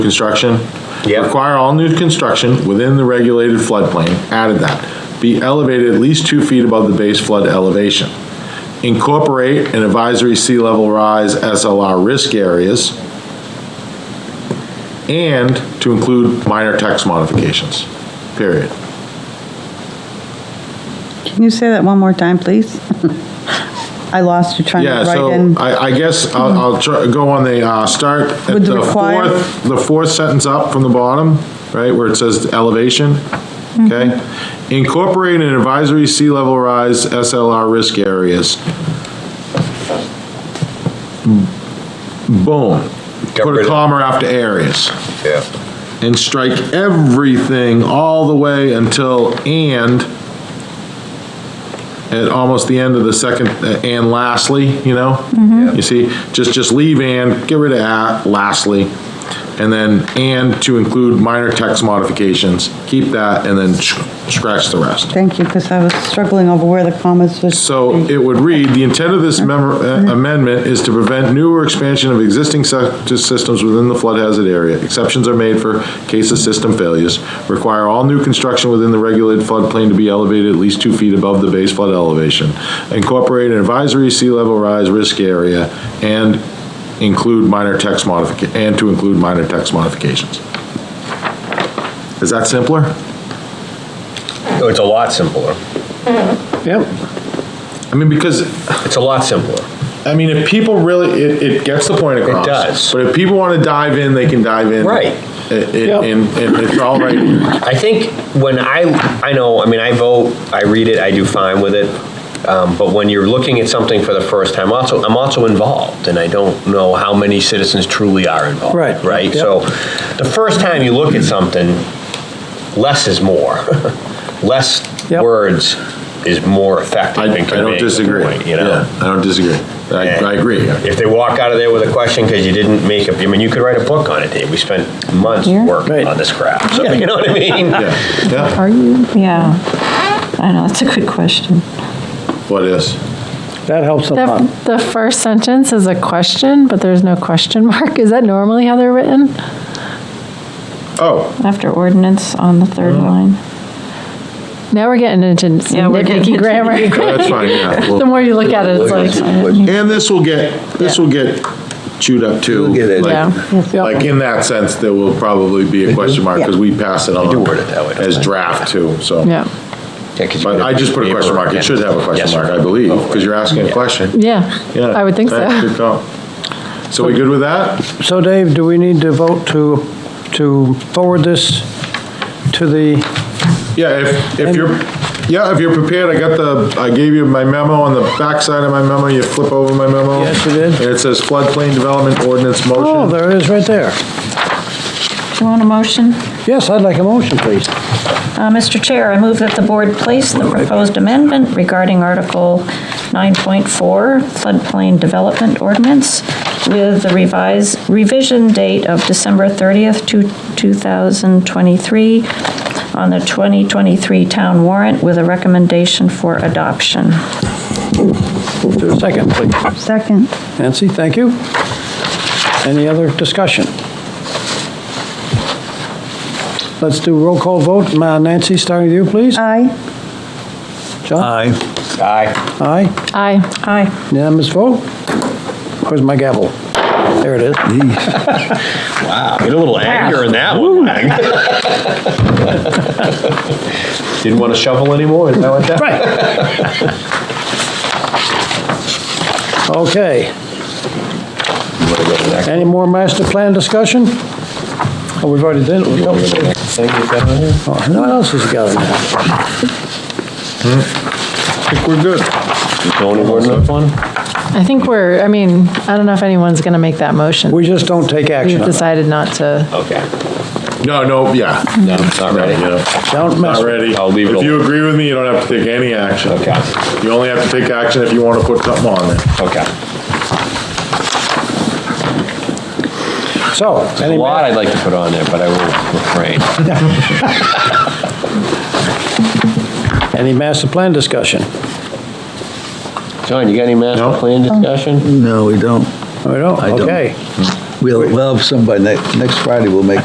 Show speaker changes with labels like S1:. S1: construction.
S2: Yep.
S1: Require all new construction within the regulated floodplain, added that, be elevated at least two feet above the base flood elevation. Incorporate an advisory sea level rise SLR risk areas, and to include minor text modifications, period.
S3: Can you say that one more time, please? I lost you trying to
S1: Yeah,
S3: write
S1: so uh,
S3: in.
S1: I, I guess I'll, I'll try, go on the, uh, start at
S3: With the
S1: the
S3: required-
S1: fourth, the fourth sentence up from the bottom, right, where it says elevation, okay?
S3: Mm-hmm.
S1: Incorporate an advisory sea level rise SLR risk areas. Boom.
S2: Got
S1: Put
S2: rid
S1: a
S2: of-
S1: comma after areas
S2: Yeah.
S1: and strike everything all the way until and at almost the end of the second, uh, and lastly, you know? You see, just, just leave and, get rid of at, lastly, and then and to include minor text modifications. Keep that and then sh- scratch the rest.
S3: Thank you, because I was struggling over where the commas was.
S1: So it would read, "The intent of this memor- uh, amendment is to prevent new or expansion of existing septic systems within the flood hazard area. Exceptions are made for case of system failures. Require all new construction within the regulated floodplain to be elevated at least two feet above the base flood elevation. Incorporate an advisory sea level rise risk area and include minor text modifica, and to include minor text modifications." Is that simpler?
S2: No, It's a lot simpler.
S4: Yep.
S1: I mean, because
S2: It's a lot simpler.
S1: I mean, if people really, it, it gets the point across.
S2: does.
S1: But if people want to dive in, they can dive in.
S2: Right.
S1: It- it-
S4: Yep.
S1: And, and it's all right. here.
S2: I think when I, I know, I mean, I vote, I read it, I do fine with it. Um, But when you're looking at something for the first time, also, I'm also involved, and I don't know how many citizens truly are involved.
S4: Right,
S2: Right?
S4: yep.
S2: So the first time you look at something, less is more. Less
S4: Yep.
S2: words is more effective
S1: I,
S2: in
S1: I
S2: conveying the
S1: don't disagree.
S2: point, you know?
S1: Yeah, I don't disagree. I, I agree.
S2: If they walk out of there with a question because you didn't make a, I mean, you could write a book on it, Dave. We spent months
S5: Yeah.
S2: working
S4: Right.
S2: on this crap. So, you know what I mean?
S1: Yeah, yeah.
S5: Are you? Yeah. I know, that's a good question.
S1: What is?
S4: That helps a lot.
S6: The, the first sentence is a question, but there's no question mark. Is that normally how they're written?
S1: Oh,
S5: After ordinance on the third line.
S6: Now we're getting into
S5: Yeah,
S6: some
S5: we're getting
S6: nitpicky
S5: into
S6: grammar.
S1: that's fine, yeah.
S6: The
S1: Well,
S6: more you look at it, it's like,
S1: And this will get, this will get chewed up too.
S2: We'll get it. Mm-hmm.
S1: Like-
S6: yeah.
S1: Like in that sense, there will probably be a question mark because we pass it on.
S2: do word it that way, don't
S1: As
S2: I?
S1: draft too, so.
S2: Yeah,
S6: Yeah,
S2: 'cause you
S1: But
S2: could-
S1: I just put a question mark. It should have a question
S2: Yes. Oh.
S1: mark, I believe, because you're asking a question.
S6: yeah,
S1: Yeah.
S6: I would think so.
S1: Thanks, Good call. So we good with that?
S4: So Dave, do we need to vote to, to forward this to the,
S1: Yeah, if, if you're, yeah, if you're prepared, I got the, I gave you my memo on the backside of my memo, you flip over my memo.
S4: Yes, you did.
S1: And it says floodplain development ordinance
S4: oh,
S1: motion.
S4: there it is right there.
S5: Do you want a motion?
S4: Yes, I'd like a motion, please.
S5: Uh, Mr. Chair, I move that the board place the proposed amendment regarding Article 9.4 floodplain development ordinance with the revised revision date of December 30th, to 2023 on the 2023 town warrant with a recommendation for adoption.
S4: Is there a second, please?
S3: Second,
S4: Nancy, thank you. Any other discussion? Let's do roll call vote. Ma- Nancy, starting with you, please.
S3: Uh, aye.
S4: John?
S7: Aye.
S2: Aye.
S4: Aye.
S6: Aye,
S5: Aye.
S4: Unanimous vote. Where's my gavel? There it is.
S2: Wow, get a little anger in that one. Didn't want to shovel anymore, is that what that?
S4: Right. Okay. Any more master plan discussion? Oh, we've already done it. Oh, No one else has got it now.
S1: I think we're good.
S2: Zoning ordinance one?
S6: I think we're, I mean, I don't know if anyone's going to make that motion.
S4: We just don't take
S6: We've
S4: action on it.
S6: decided not to,
S2: Okay.
S1: No, no, yeah.
S2: No, not ready.
S4: Don't mess
S1: Not
S4: with it.
S1: ready.
S2: I'll leave it
S1: If you agree with me, you don't have to take any action.
S2: Okay.
S1: You only have to take action if you want to put something on there.
S2: Okay.
S4: So,
S2: A
S4: any,
S2: lot
S4: ma-
S2: I'd like to put on there, but I will refrain.
S4: any master plan discussion?
S2: John, you got any master
S1: No.
S2: plan discussion?
S7: No, we don't.
S4: We don't,
S7: I don't.
S4: okay.
S7: We'll, we'll have somebody, next, next Friday, we'll make